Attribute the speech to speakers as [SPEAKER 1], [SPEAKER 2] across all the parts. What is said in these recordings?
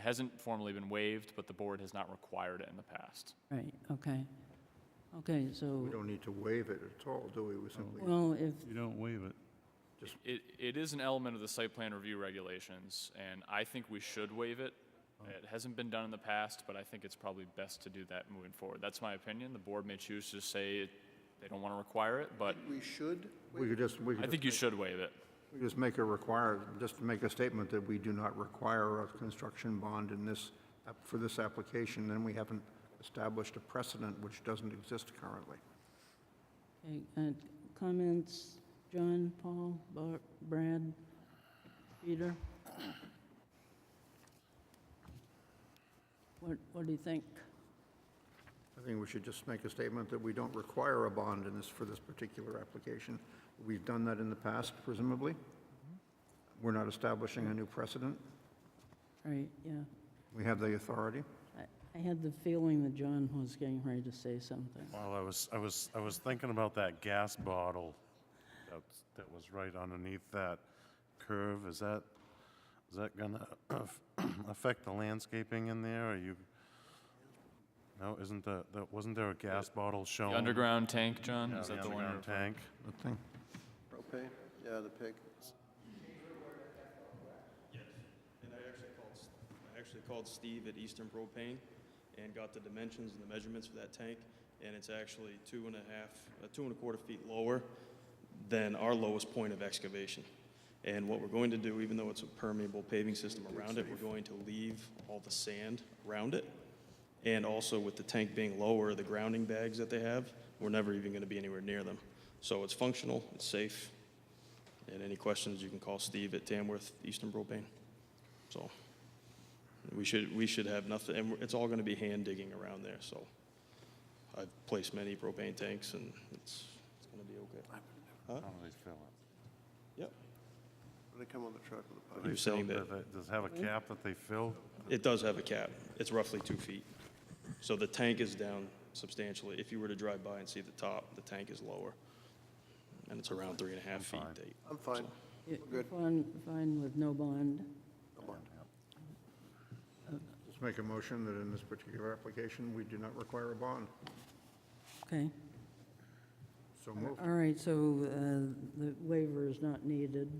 [SPEAKER 1] It hasn't formally been waived, but the board has not required it in the past.
[SPEAKER 2] Right, okay. Okay, so,
[SPEAKER 3] We don't need to waive it at all, do we? We simply
[SPEAKER 2] well, if,
[SPEAKER 4] You don't waive it.
[SPEAKER 1] It, it is an element of the site plan review regulations, and I think we should waive it.
[SPEAKER 4] Oh.
[SPEAKER 1] It hasn't been done in the past, but I think it's probably best to do that moving forward. That's my opinion. The board may choose to say they don't want to require it, but
[SPEAKER 5] We should,
[SPEAKER 3] We could just, we
[SPEAKER 1] I
[SPEAKER 3] could
[SPEAKER 1] think
[SPEAKER 3] just,
[SPEAKER 1] you should waive it.
[SPEAKER 3] we could just make a require, just make a statement that we do not require a construction bond in this, app- for this application, then we haven't established a precedent which doesn't exist currently.
[SPEAKER 2] okay, uh, comments, John, Paul, Bar- Brad, Peter? What, what do you think?
[SPEAKER 3] I think we should just make a statement that we don't require a bond in this, for this particular application. We've done that in the past, presumably. We're not establishing a new precedent.
[SPEAKER 2] Right, yeah.
[SPEAKER 3] We have the authority.
[SPEAKER 2] I- I had the feeling that John was getting ready to say something.
[SPEAKER 4] Well, I was, I was, I was thinking about that gas bottle that's, that was right underneath that curve. Is that, is that gonna affect the landscaping in there? Are you, no, isn't the, that, wasn't there a gas bottle shown?
[SPEAKER 1] The underground tank, John,
[SPEAKER 4] Oh. Yeah,
[SPEAKER 1] is
[SPEAKER 4] the
[SPEAKER 1] that the one?
[SPEAKER 4] underground
[SPEAKER 1] you're-
[SPEAKER 4] tank?
[SPEAKER 3] Good thing.
[SPEAKER 5] propane, yeah, the pig.
[SPEAKER 6] And I actually called, S- I actually called Steve at Eastern Propane and got the dimensions and the measurements for that tank, and it's actually two and a half, uh, two and a quarter feet lower than our lowest point of excavation. And what we're going to do, even though it's a permeable paving system around it, we're going to leave all the sand around it. And also with the tank being lower, the grounding bags that they have, we're never even going to be anywhere near them. So it's functional, it's safe, and any questions, you can call Steve at Tamworth Eastern Propane. So we should, we should have nothing, and it's all going to be hand digging around there, so. I've placed many propane tanks and it's, it's going to be okay.
[SPEAKER 4] How do they fill it?
[SPEAKER 6] Yep.
[SPEAKER 5] They come on the truck with a pipe.
[SPEAKER 4] Do they
[SPEAKER 6] You're saying
[SPEAKER 4] fill-
[SPEAKER 6] that-
[SPEAKER 4] do they- Does it have a cap that they fill?
[SPEAKER 6] It does have a cap. It's roughly two feet. So the tank is down substantially. If you were to drive by and see the top, the tank is lower. And it's around three and a half feet
[SPEAKER 4] fine.
[SPEAKER 6] deep.
[SPEAKER 5] I'm fine.
[SPEAKER 2] Yeah,
[SPEAKER 5] Good.
[SPEAKER 2] Fine, fine with no bond.
[SPEAKER 3] Just make a motion that in this particular application, we do not require a bond.
[SPEAKER 2] Okay.
[SPEAKER 3] So moved.
[SPEAKER 2] All right, so uh, the waiver is not needed,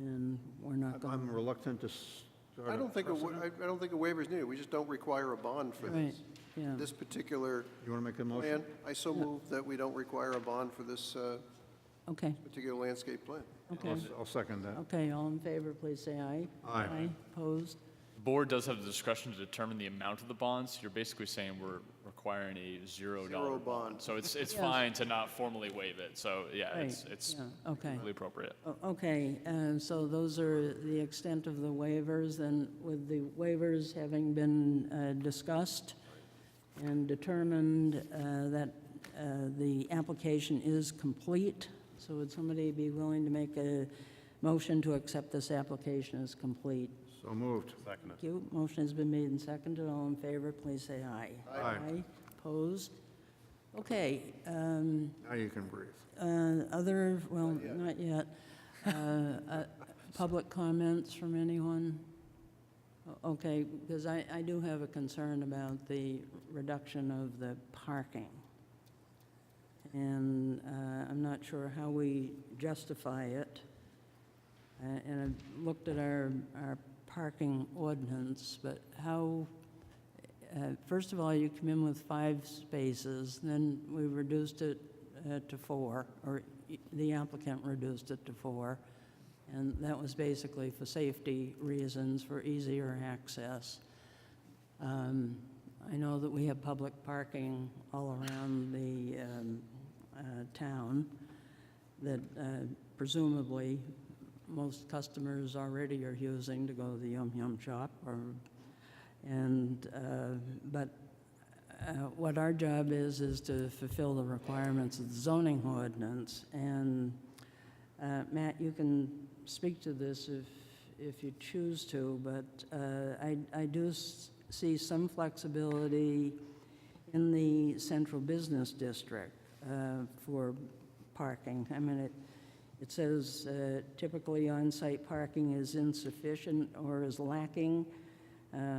[SPEAKER 2] and we're not going.
[SPEAKER 3] I'm reluctant to start
[SPEAKER 5] I
[SPEAKER 3] a
[SPEAKER 5] don't think, a wa-
[SPEAKER 3] precedent.
[SPEAKER 5] I I don't think a waiver is needed. We just don't require a bond for
[SPEAKER 2] Right,
[SPEAKER 5] this.
[SPEAKER 2] yeah.
[SPEAKER 5] This particular
[SPEAKER 3] You want to make a motion?
[SPEAKER 5] plan, I so move that we don't require a bond for this uh,
[SPEAKER 2] Okay,
[SPEAKER 5] particular landscape plan.
[SPEAKER 2] okay.
[SPEAKER 3] I'll s- I'll second that.
[SPEAKER 2] Okay, all in favor, please say aye.
[SPEAKER 3] Aye.
[SPEAKER 2] Opposed?
[SPEAKER 1] The board does have the discretion to determine the amount of the bonds. You're basically saying we're requiring a zero dollar
[SPEAKER 5] Zero
[SPEAKER 1] bond.
[SPEAKER 5] bond.
[SPEAKER 1] So it's, it's
[SPEAKER 2] Yes.
[SPEAKER 1] fine to not formally waive it, so yeah, it's,
[SPEAKER 2] Right,
[SPEAKER 1] it's
[SPEAKER 2] yeah, okay.
[SPEAKER 1] completely appropriate.
[SPEAKER 2] O- Okay, uh, so those are the extent of the waivers, and with the waivers having been uh, discussed and determined uh, that uh, the application is complete, so would somebody be willing to make a motion to accept this application as complete?
[SPEAKER 3] So moved.
[SPEAKER 4] Second
[SPEAKER 2] Thank you. Motion has been made and seconded. All in favor, please say aye.
[SPEAKER 3] Aye.
[SPEAKER 2] Opposed? Okay, um,
[SPEAKER 3] Now you can breathe.
[SPEAKER 2] uh, other, well, not yet. Uh, uh, Public comments from anyone? O- Okay, because I, I do have a concern about the reduction of the parking. And uh, I'm not sure how we justify it. Uh, And I've looked at our, our parking ordinance, but how, uh, first of all, you come in with five spaces, then we reduced it uh, to four, or y- the applicant reduced it to four, and that was basically for safety reasons, for easier access. Um, I know that we have public parking all around the um, uh, town that uh, presumably most customers already are using to go to the Yum Yum Shop or, and, uh, but uh, what our job is, is to fulfill the requirements of the zoning ordinance. And uh, Matt, you can speak to this if, if you choose to, but uh, I, I do s- see some flexibility in the central business district uh, for parking. I mean, it, it says uh, typically on-site parking is insufficient or is lacking. uh,